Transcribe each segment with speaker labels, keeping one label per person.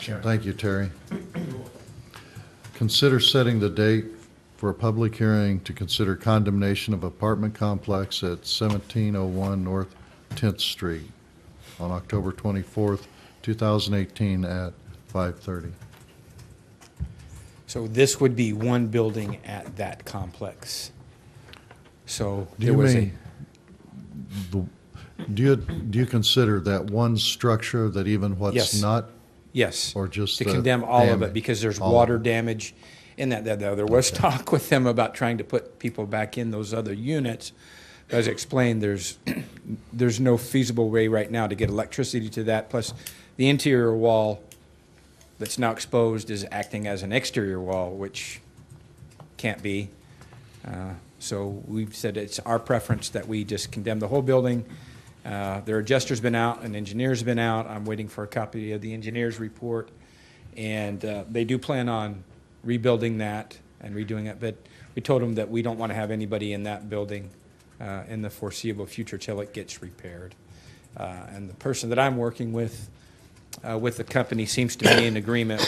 Speaker 1: Sharon.
Speaker 2: Thank you, Terry. Consider setting the date for a public hearing to consider condemnation of apartment complex at seventeen oh one North Tenth Street on October twenty-fourth, two thousand eighteen at five thirty.
Speaker 3: So this would be one building at that complex. So
Speaker 2: Do
Speaker 3: there
Speaker 2: you
Speaker 3: was a,
Speaker 2: mean, the- do you, do you consider that one structure that even what's
Speaker 3: Yes.
Speaker 2: not?
Speaker 3: yes.
Speaker 2: or just
Speaker 3: To
Speaker 2: the
Speaker 3: condemn all of
Speaker 2: damage?
Speaker 3: it because there's
Speaker 2: All of
Speaker 3: water
Speaker 2: it.
Speaker 3: damage and that, that, that- there was talk with them about trying to put people back in those other units. As explained, there's, there's no feasible way right now to get electricity to that. Plus, the interior wall that's now exposed is acting as an exterior wall, which can't be. Uh, So we've said it's our preference that we just condemn the whole building. Uh, Their adjuster's been out, an engineer's been out. I'm waiting for a copy of the engineer's report. And uh, they do plan on rebuilding that and redoing it, but we told them that we don't want to have anybody in that building uh, in the foreseeable future till it gets repaired. Uh, And the person that I'm working with, uh, with the company seems to be in agreement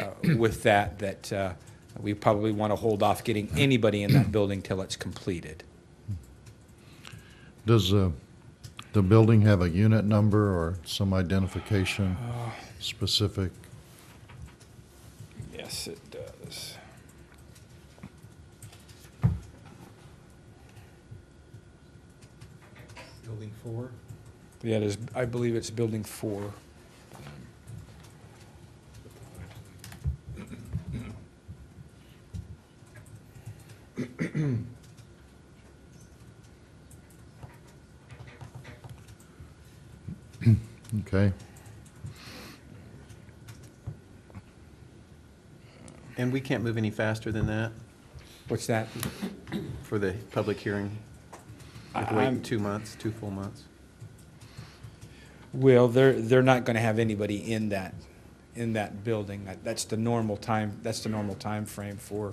Speaker 3: uh, with that, that uh, we probably want to hold off getting anybody in that building till it's completed.
Speaker 2: Does uh, the building have a unit number or some identification specific?
Speaker 3: Yes, it does.
Speaker 1: Building four.
Speaker 3: Yeah, it is, I believe it's building four.
Speaker 2: Okay,
Speaker 4: And we can't move any faster than that
Speaker 3: What's that?
Speaker 4: for the public hearing? We have to
Speaker 3: I'm-
Speaker 4: Wait two months, two full months?
Speaker 3: Well, they're, they're not going to have anybody in that, in that building. That- That's the normal time, that's the normal timeframe for,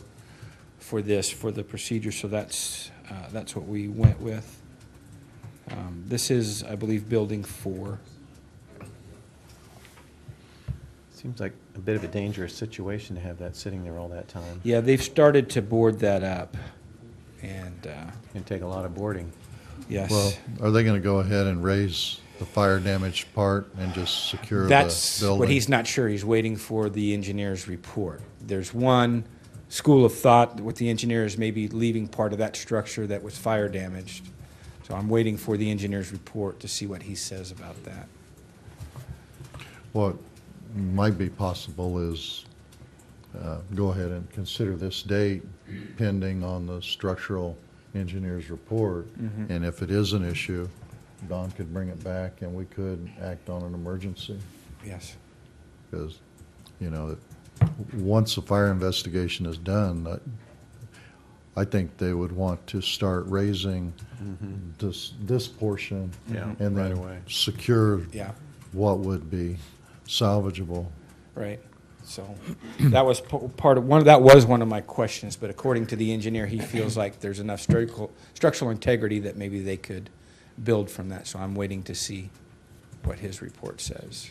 Speaker 3: for this, for the procedure, so that's, uh, that's what we went with. Um, This is, I believe, building four.
Speaker 4: Seems like a bit of a dangerous situation to have that sitting there all that time.
Speaker 3: Yeah, they've started to board that up, and, uh,
Speaker 4: It'd take a lot of boarding.
Speaker 2: well,
Speaker 3: yes.
Speaker 2: are they going to go ahead and raise the fire damage part and just secure the building?
Speaker 3: That's what he's not sure, he's waiting for the engineer's report. There's one school of thought with the engineers maybe leaving part of that structure that was fire damaged. So I'm waiting for the engineer's report to see what he says about that.
Speaker 2: What might be possible is, uh, go ahead and consider this date pending on the structural engineer's report.
Speaker 3: Mm-hmm.
Speaker 2: And if it is an issue, Don could bring it back and we could act on an emergency.
Speaker 3: Yes,
Speaker 2: Because, you know, it- once a fire investigation is done, I- I think they would want to start raising this, this portion.
Speaker 4: Mm-hmm. Yeah,
Speaker 2: And
Speaker 4: right
Speaker 2: then
Speaker 4: away.
Speaker 2: secure
Speaker 3: yeah,
Speaker 2: what would be salvageable.
Speaker 3: right. So that was po- part of, one, that was one of my questions, but according to the engineer, he feels like there's enough structural, structural integrity that maybe they could build from that. So I'm waiting to see what his report says.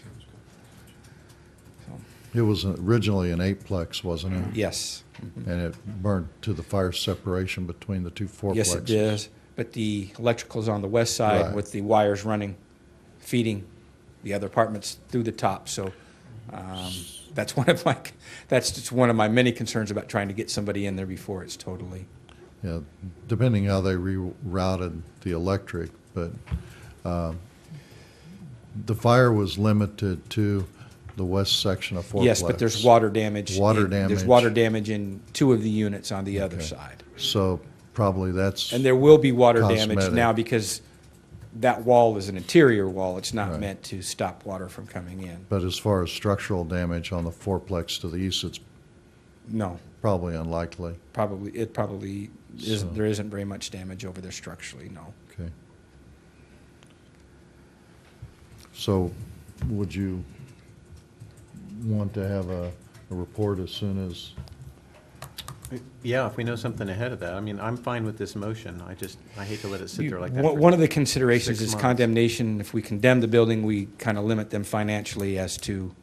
Speaker 2: It was originally an eightplex, wasn't it?
Speaker 3: Yes.
Speaker 2: And it burned to the fire separation between the two fourplexes.
Speaker 3: Yes, it is. But the electrical's on the west
Speaker 2: Right.
Speaker 3: side with the wires running, feeding the other apartments through the top. So um, that's one of my, that's just one of my many concerns about trying to get somebody in there before it's totally.
Speaker 2: Yeah, depending how they rerouted the electric, but um, the fire was limited to the west section of fourplex.
Speaker 3: Yes, but there's water damage.
Speaker 2: Water
Speaker 3: in- There's
Speaker 2: damage.
Speaker 3: water damage in two of the units on the other side.
Speaker 2: So probably that's,
Speaker 3: And there will be water damage
Speaker 2: Cosmetic.
Speaker 3: now because that wall is an interior wall. It's not
Speaker 2: Right.
Speaker 3: meant to stop water from coming in.
Speaker 2: but as far as structural damage on the fourplex to the east, it's
Speaker 3: No.
Speaker 2: probably unlikely.
Speaker 3: probably, it probably
Speaker 2: So-
Speaker 3: isn't, there isn't very much damage over there structurally, no.
Speaker 2: Okay. So would you want to have a a report as soon as,
Speaker 4: Yeah, if we know something ahead of that. I mean, I'm fine with this motion. I just, I hate to let it sit there like that.
Speaker 3: One
Speaker 4: for-
Speaker 3: one of the considerations
Speaker 4: six
Speaker 3: is
Speaker 4: months.
Speaker 3: condemnation. If we condemn the building, we kind of limit them financially as to